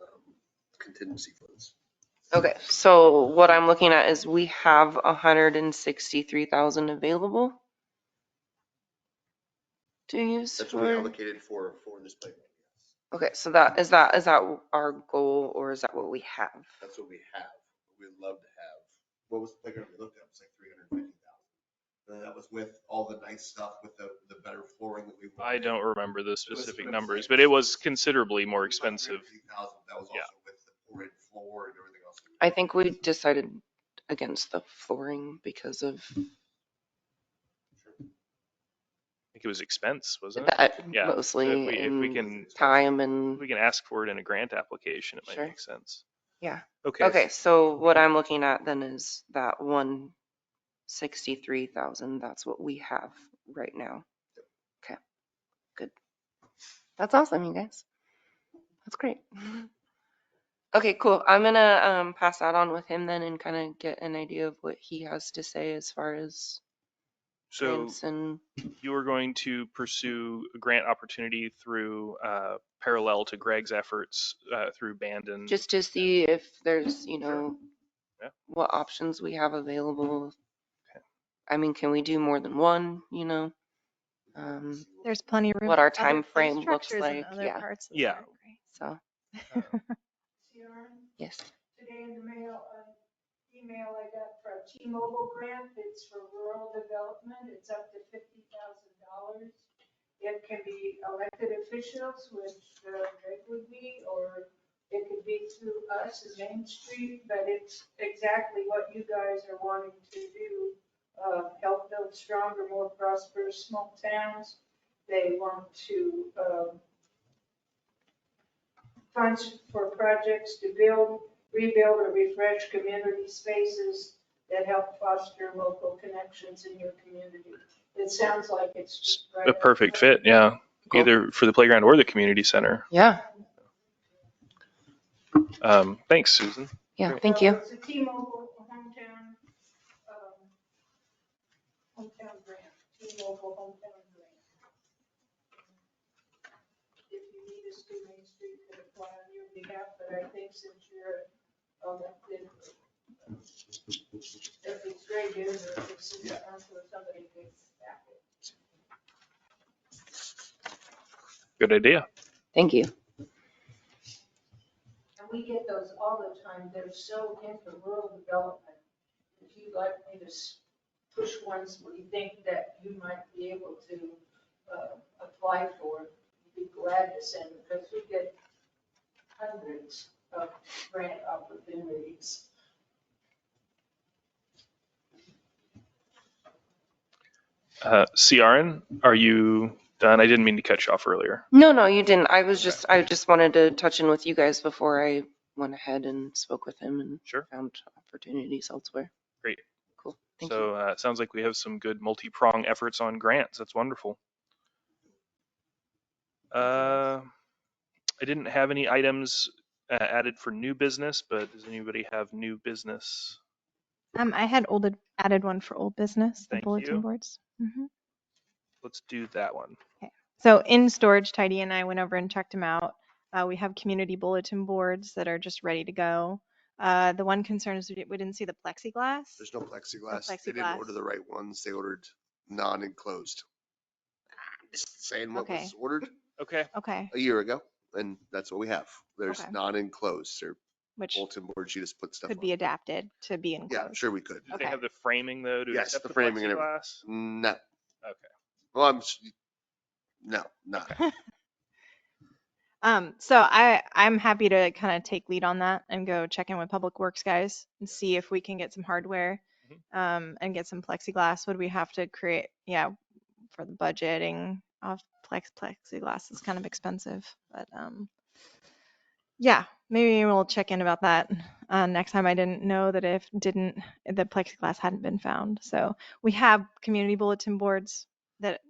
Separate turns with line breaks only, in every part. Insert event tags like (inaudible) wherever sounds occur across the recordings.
um, contingency funds.
Okay, so what I'm looking at is we have hundred and sixty-three thousand available to use.
That's what we
for-
allocated for, for this playground. yes.
Okay, so that, is that, is that our goal or is that what we have?
That's what we have. We'd love to have. What was the playground we looked at? It was like three hundred and fifty thousand. And that was with all the nice stuff with the, the better flooring that we.
I
wanted.
don't remember the
was
specific
like-
numbers, but it was considerably more
It was like
expensive.
350,000. That was also
Yeah.
with the poured floor and everything else.
I think we decided against the flooring because of
I think it was expense, wasn't it?
that
Mm-hmm. Yeah, so If
mostly
we, if we
and
can,
time
if
and,
we can ask for it in a grant application, it
Sure.
might make sense.
Yeah.
Okay.
okay, so what I'm looking at then is that one sixty-three thousand, that's what we have right now. Okay, good. That's awesome, you guys. That's great. (laughs) Okay, cool. I'm gonna, um, pass that on with him then and kind of get an idea of what he has to say as far as
So
grants and,
you are going to pursue a grant opportunity through, uh, parallel to Greg's efforts, uh, through Bandon.
just to see if there's, you know,
Yeah.
what options we have available.
Okay.
I mean, can we do more than one, you know? Um,
There's plenty of room.
What our
for other-
time frame
there's
looks
structures in
like,
other
yeah.
parts of the
Yeah.
park, right?
so,
Sharon,
yes.
today in the mail, uh, email I got for a T-Mobile grant, it's for rural development, it's up to fifty thousand dollars. It can be elected officials, which uh, Greg would be, or it could be through us as Main Street, but it's exactly what you guys are wanting to do. uh, Help build stronger, more prosperous small towns. They want to um, funds for projects to build, rebuild, or refresh community spaces that help foster local connections in your community. It sounds like it's. just right
A
up-
perfect fit, yeah,
Cool.
either for the playground or the community center.
Yeah,
Um, thanks, Susan.
yeah,
Great.
thank
Uh, So
you.
It's a T-Mobile hometown, um, hometown grant, T-Mobile hometown grant. If you need us to, Main Street could apply on your behalf, but I think since you're elected, if it's Greg Denver, if it's city
Yeah.
council, or somebody could back it.
Good idea.
Thank you.
And we get those all the time. They're so into rural development. If you'd like me to s- push ones we think that you might be able to uh, apply for, be glad to send, because we get hundreds of grant opportunities.
Uh, CRN, are you done? I didn't mean to cut you off earlier.
No, no, you didn't. I was just, I just wanted to touch in with you guys before I went ahead and spoke with him and
Sure.
found opportunities elsewhere.
Great.
Cool, thank you.
So uh, it sounds like we have some good multi-prong efforts on grants. That's wonderful. Uh, I didn't have any items uh, added for new business, but does anybody have new business?
Um, I had old, added one for old business, the
Thank
bulletin
you.
boards. Mhm.
Let's do that one.
So in storage, Tidy and I went over and checked them out. Uh, we have community bulletin boards that are just ready to go. Uh, the one concern is we di- we didn't see the plexiglass.
There's no plexiglass. They
plexiglass.
didn't order the right ones. They ordered non-enclosed. Just Saying what
Okay.
was ordered
Okay.
Okay,
a year ago, and that's what we have. There's
Okay.
non-enclosed. They're
which
bulletin boards. You just put stuff
could
on.
be adapted to be
Yeah, I'm
enclosed.
sure we could.
Do they
Okay.
have the framing though to
Yes,
accept
the
the
framing and everything.
plexiglass?
No. Okay.
Okay.
Well, I'm, s- no, not.
Um, so I, I'm happy to kind of take lead on that and go check in with Public Works guys and see if we can get some hardware, um, and get some plexiglass. Would we have to create, yeah, for the budgeting of plex, plexiglass is kind of expensive, but, um, yeah, maybe we'll check in about that. Uh, next time I didn't know that if didn't, the plexiglass hadn't been found. So we have community bulletin boards that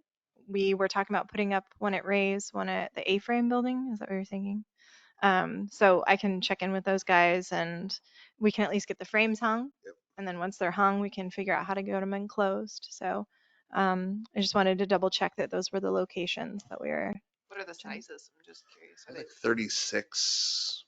we were talking about putting up one at Ray's, one at the A-frame building. Is that what you're thinking? Um, so I can check in with those guys and we can at least get the frames hung.
Yep.
And then once they're hung, we can figure out how to get them enclosed. So um, I just wanted to double check that those were the locations that we were.
What are the
Jenny?
sizes? I'm just curious. Are
I
they
think 36